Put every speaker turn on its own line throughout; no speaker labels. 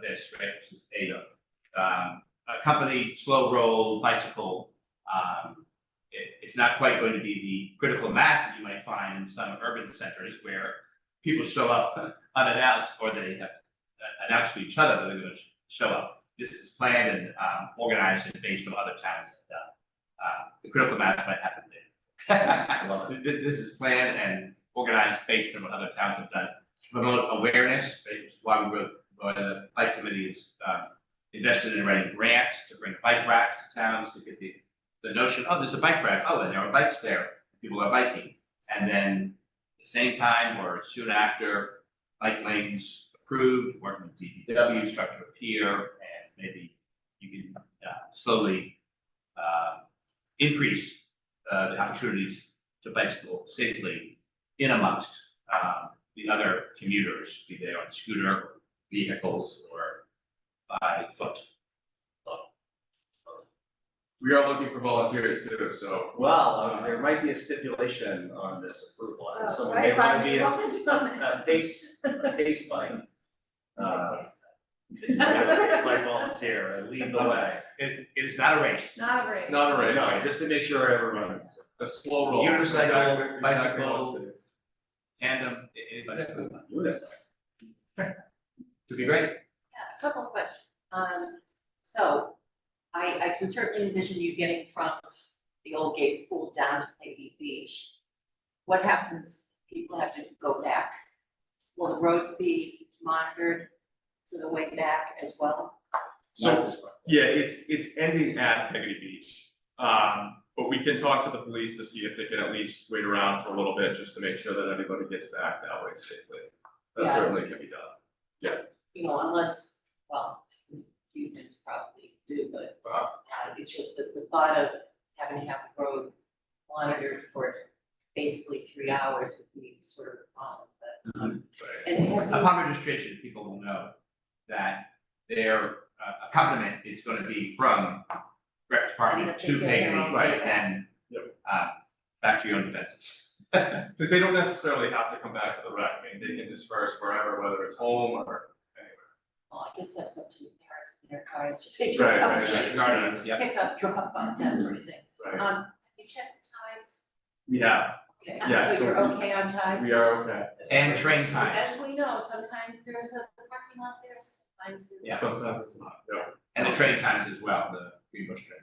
this, right, which is ADO. Um, a company, slow roll bicycle, um, it, it's not quite going to be the critical mass that you might find in some urban centers where people show up unannounced or they have announced to each other that they're gonna sh- show up. This is planned and, um, organized and based on other towns that, uh, uh, the critical mass might happen later.
I love
Th- th- This is planned and organized based on what other towns have done to promote awareness, right, which is why we wrote, why the bike committee is uh, invested in writing grants to bring bike racks to towns to get the, the notion, oh, there's a bike rack, oh, and there are bikes there, people are biking. And then the same time or soon after, bike lanes approved, working with DPW, structure a pier, and maybe you can uh, slowly uh, increase uh, the opportunities to bicycle safely in amongst um, the other commuters, be they on scooter, vehicles, or by foot.
We are looking for volunteers too, so.
Well, uh, there might be a stipulation on this approval, and
Oh,
so
right,
they wanna be a,
Robin's
a
on it.
face, a face bike. Uh, yeah, face bike volunteer, I lead the way.
It, it is not a race.
Not a race.
Not a
No,
race,
just to make sure everyone's,
a slow roll.
Unicycle,
Exactly- exactly
bicycle.
what it is.
Tandem, i- i- bicycle.
unicycle.
To be great.
Yeah, a couple of questions. Um, so I, I can certainly envision you getting from the old gate school down to Lady Beach. What happens, if people have to go back? Will the roads be monitored for the way back as well?
So, yeah, it's, it's ending at Peggy Beach. Um, but we can talk to the police to see if they can at least wait around for a little bit, just to make sure that everybody gets back that way safely. That
Yeah.
certainly can be done.
You know, unless, well, humans probably do, but uh, it's just the, the thought of having to have the road monitored for basically three hours would be sort of a problem, but. And have you-
Upon registration, people will know that their uh, accompaniment is gonna be from rec department
And that
to
they get their
Peggy,
own
right,
way back.
and uh, back to your own defenses.
But they don't necessarily have to come back to the rec, I mean, they can disperse wherever, whether it's home or
Well, I guess that's up to the parents and their cars to figure
anywhere. Right,
out.
right, right.
Guardians, yeah.
Pick up, drop off, that sort of thing.
Right,
Um, have you checked the times?
yeah,
Okay,
Yeah,
so
so
you're
we-
okay on times?
we are okay,
And train
Because
times,
as we know, sometimes there's a parking lot there, sometimes there's.
Yeah.
sometimes it's not, yeah.
and the train times as well, the Green Bush train.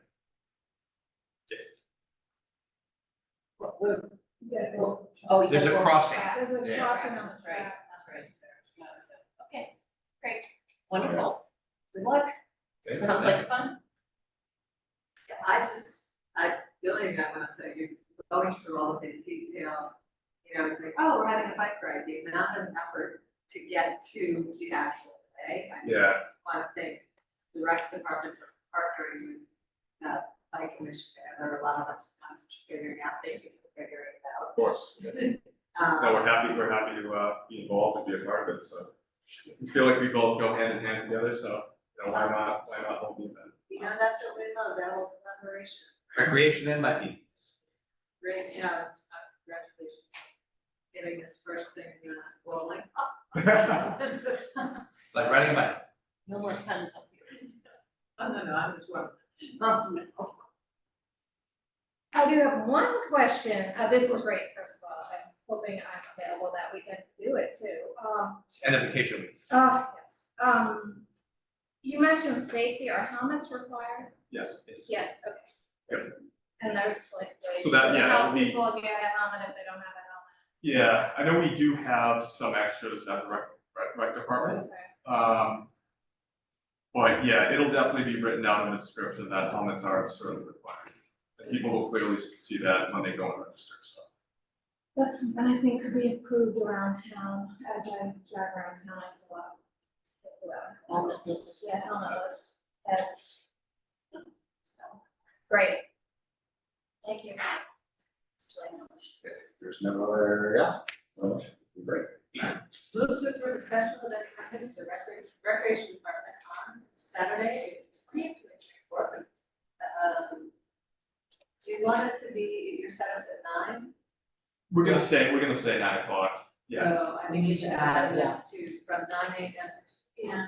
What- what-
Yeah, well,
Oh, you
There's
gotta
a
go
crossing.
back.
There's a
Yeah.
crossing on the
That's right,
track.
that's right. Okay, great, wonderful. Good luck, sounds like fun.
I just, I, building that one, up, so you're going through all of the details. You know, it's like, oh, we're having a bike ride, the amount of effort to get to the actual day. I just
Yeah.
want to thank the rec department for partnering with, uh, bike commissioner, there are a lot of us figuring out, thank you for figuring it out.
Of course,
Um,
no, we're happy, we're happy to uh be involved and be a part of it, so. I Feel like we both go hand in hand together, so, you know, why not, why not hold the event?
You know, that's what we love, that whole collaboration,
Recreation and biking.
great, you know, it's, uh, congratulations. Getting this first thing, you know, rolling.
like riding a bike.
No more puns up here.
Oh, no, no, I was wrong. Oh,
Um,
I do have one question, uh, this was great, first of all, I'm hoping I'm available that weekend to do it too, um,
And a vacation week.
oh, yes, um. You mentioned safety, are helmets required?
Yes, yes.
Yes, okay. And there's like ways
So that-
to
yeah, that
help
would be-
people get a helmet if they don't have a
Yeah, I know we do have some extras at the rec, rec, rec department,
helmet. Okay.
um. But yeah, it'll definitely be written down in the description that helmets are certainly required. And people will clearly see that when they go and register, so.
That's something I think could be improved around town, as I drive around town, I see a lot of. people without helmets.
Almost this.
Yeah, I don't know, that's, that's. so, Great. Thank you.
There's no other, yeah, well, great.
Move to approve a special event permit to recreation, recreation department on Saturday, twentieth, twenty-four. Um, do you want it to be, your setups at nine?
We're gonna say, we're gonna say nine o'clock, yeah,
So I think you should add this to from nine AM to two PM